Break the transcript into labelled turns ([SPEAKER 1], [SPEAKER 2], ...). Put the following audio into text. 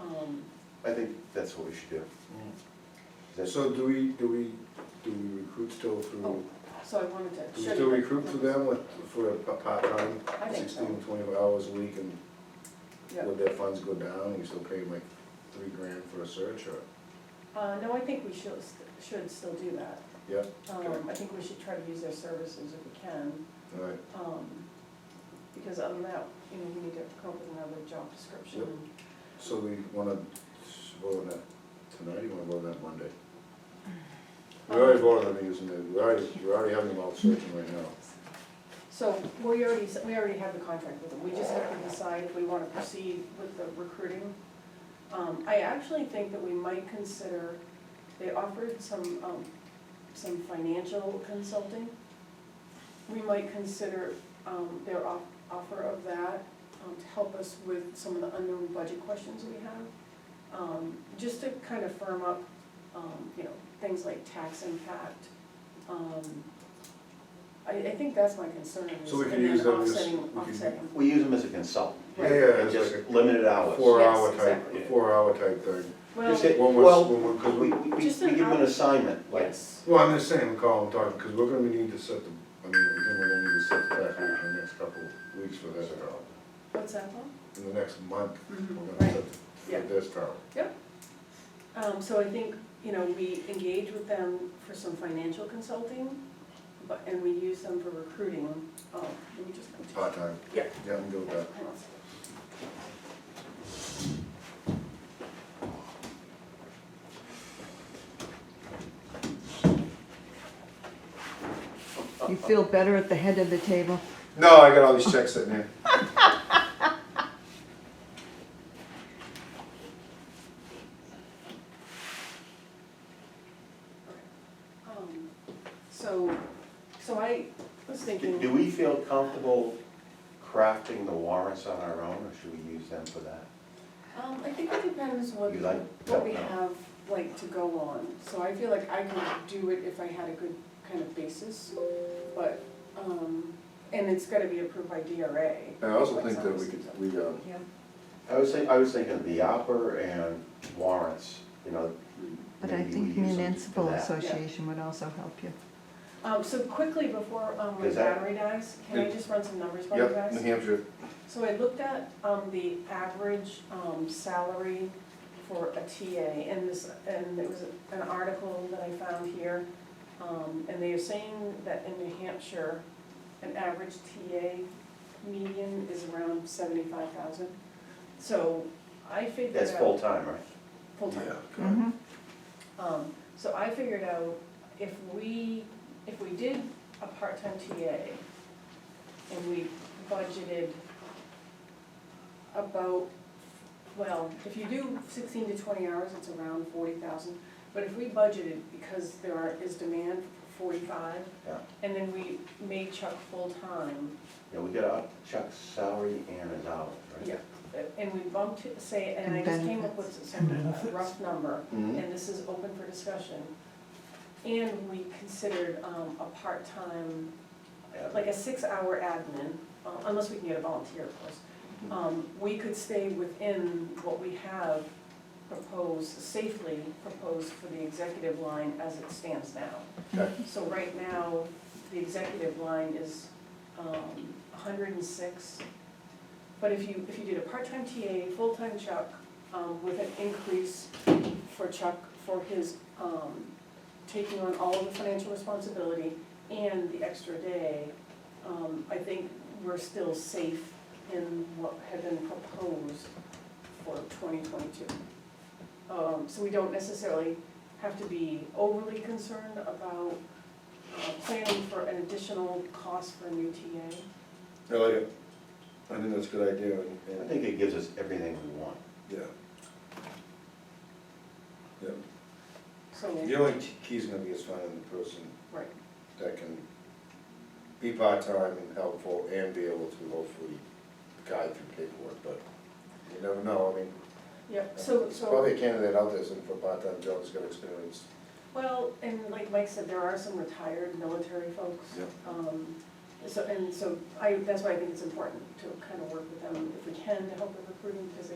[SPEAKER 1] Um,
[SPEAKER 2] I think that's what we should do. That's-
[SPEAKER 3] So do we, do we, do we recruit still through,
[SPEAKER 1] oh, So I wanted to.
[SPEAKER 3] Mm-hmm. do we
[SPEAKER 1] show you
[SPEAKER 3] still
[SPEAKER 1] that.
[SPEAKER 3] recruit through them with, for a pa- part-time,
[SPEAKER 1] I think so.
[SPEAKER 3] 16, 24 hours a week and
[SPEAKER 1] Yeah.
[SPEAKER 3] would their funds go down, you still pay them like three grand for a search or,
[SPEAKER 1] Uh, no, I think we should, should still do that.
[SPEAKER 3] yeah,
[SPEAKER 1] Um, I think we should try to use their services if we can,
[SPEAKER 3] all right,
[SPEAKER 1] um, because other than that, you know, we need to come up with another job description.
[SPEAKER 3] Yep. so we wanna vote on that tonight, you wanna vote on that Monday? We already
[SPEAKER 1] Um,
[SPEAKER 3] voted on using it, we already, we already having them out searching right now.
[SPEAKER 1] So we already, s- we already have the contract with them, we just have to decide if we wanna proceed with the recruiting. Um, I actually think that we might consider, they offered some, um, some financial consulting. We might consider, um, their off, offer of that, um, to help us with some of the unknown budget questions we have. Um, just to kind of firm up, um, you know, things like tax impact, um, I, I think that's my concern, is
[SPEAKER 3] So we could
[SPEAKER 1] and
[SPEAKER 3] use
[SPEAKER 1] then
[SPEAKER 3] them as-
[SPEAKER 1] offsetting,
[SPEAKER 3] we could-
[SPEAKER 1] offsetting.
[SPEAKER 2] We use them as a consultant.
[SPEAKER 3] Yeah, yeah,
[SPEAKER 2] And
[SPEAKER 3] it's
[SPEAKER 2] Just
[SPEAKER 3] like a-
[SPEAKER 2] limited
[SPEAKER 3] A
[SPEAKER 2] hours.
[SPEAKER 3] four-hour
[SPEAKER 1] Yes,
[SPEAKER 3] type,
[SPEAKER 1] exactly.
[SPEAKER 3] a four-hour type thing.
[SPEAKER 1] Well,
[SPEAKER 2] Just say,
[SPEAKER 3] When we're-
[SPEAKER 2] well,
[SPEAKER 3] when we're- 'cause
[SPEAKER 2] we, we, we give
[SPEAKER 1] Just an
[SPEAKER 2] them an
[SPEAKER 1] hour.
[SPEAKER 2] assignment, like,
[SPEAKER 1] yes,
[SPEAKER 3] Well, I'm just saying, I'm calling, talking, because we're gonna need to set the, I mean, again, we're gonna need to set the tax rate in the next couple of weeks for this town.
[SPEAKER 1] what's that called?
[SPEAKER 3] In the next month,
[SPEAKER 1] Mhm,
[SPEAKER 3] we're gonna
[SPEAKER 1] right.
[SPEAKER 3] set the-
[SPEAKER 1] yeah.
[SPEAKER 3] for this town.
[SPEAKER 1] Um, so I think, you know, we engage with them for some financial consulting, but, and we use them for recruiting, um, let me just.
[SPEAKER 3] part-time.
[SPEAKER 1] Yeah.
[SPEAKER 3] Yeah, I'm good with that.
[SPEAKER 1] Hang on a second.
[SPEAKER 4] You feel better at the head of the table?
[SPEAKER 3] No, I got all these checks sitting there.
[SPEAKER 1] Um, So, so I was
[SPEAKER 2] do
[SPEAKER 1] thinking.
[SPEAKER 2] do we feel comfortable crafting the warrants on our own, or should we use them for that?
[SPEAKER 1] Um, I think it depends what,
[SPEAKER 2] You like
[SPEAKER 1] what we
[SPEAKER 2] that, no?
[SPEAKER 1] have, like, to go on, so I feel like I could do it if I had a good kind of basis, but, um, and it's gotta be approved by DRA.
[SPEAKER 3] I also think that we could, we, um,
[SPEAKER 4] Yeah.
[SPEAKER 2] I was think I was thinking the upper and warrants, you know.
[SPEAKER 4] But I
[SPEAKER 2] maybe
[SPEAKER 4] think
[SPEAKER 2] we use them for
[SPEAKER 4] municipal
[SPEAKER 2] that.
[SPEAKER 4] association would also help you.
[SPEAKER 1] Um, so quickly before, um, my
[SPEAKER 2] Is that- Mm-hmm.
[SPEAKER 1] battery dies, can I just run some numbers by you guys?
[SPEAKER 3] yep, New Hampshire,
[SPEAKER 1] So I looked at, um, the average, um, salary for a TA, and this, and it was an article that I found here. Um, and they are saying that in New Hampshire, an average TA median is around seventy-five thousand. So I figured out.
[SPEAKER 2] That's full-time, right?
[SPEAKER 1] Full-time. Mm-hmm.
[SPEAKER 4] Mhm.
[SPEAKER 1] Um, so I figured out if we, if we did a part-time TA and we budgeted about, well, if you do sixteen to twenty hours, it's around forty thousand. But if we budgeted, because there are, is demand for forty-five,
[SPEAKER 2] Yeah.
[SPEAKER 1] and then we made Chuck full-time,
[SPEAKER 2] Yeah, we got up Chuck's salary and his hours, right?
[SPEAKER 1] Yeah. and we bumped it, say, and I
[SPEAKER 4] And
[SPEAKER 1] just came up
[SPEAKER 4] benefits.
[SPEAKER 1] with some rough number,
[SPEAKER 3] Mhm.
[SPEAKER 1] and this is open for discussion. And we considered um, a part-time,
[SPEAKER 2] Yeah.
[SPEAKER 1] like a six-hour admin, uh, unless we can get a volunteer, of course. Um, We could stay within what we have proposed, safely proposed for the executive line as it stands now.
[SPEAKER 3] Okay.
[SPEAKER 1] So right now, the executive line is um, 106. But if you, if you did a part-time TA, full-time Chuck, um, with an increase for Chuck for his um, taking on all of the financial responsibility and the extra day, um, I think we're still safe in what had been proposed for 2022. Um, So we don't necessarily have to be overly concerned about uh, planning for an additional cost for a new TA.
[SPEAKER 3] I like it. Oh, I think that's a good idea, and,
[SPEAKER 2] I
[SPEAKER 3] and,
[SPEAKER 2] think it gives us everything we want.
[SPEAKER 3] yeah. Yeah, the
[SPEAKER 1] So,
[SPEAKER 3] only t- key's gonna be is finding the person
[SPEAKER 1] right,
[SPEAKER 3] that can be part-time and helpful and be able to hopefully guide through paperwork, but you never know, I mean,
[SPEAKER 1] yep, so,
[SPEAKER 3] there's
[SPEAKER 1] so.
[SPEAKER 3] probably a candidate out there looking for a part-time job that's got experience.
[SPEAKER 1] Well, and like Mike said, there are some retired military folks.
[SPEAKER 3] Yeah.
[SPEAKER 1] Um, So, and so I, that's why I think it's important to kind of work with them if we can to help with recruiting, because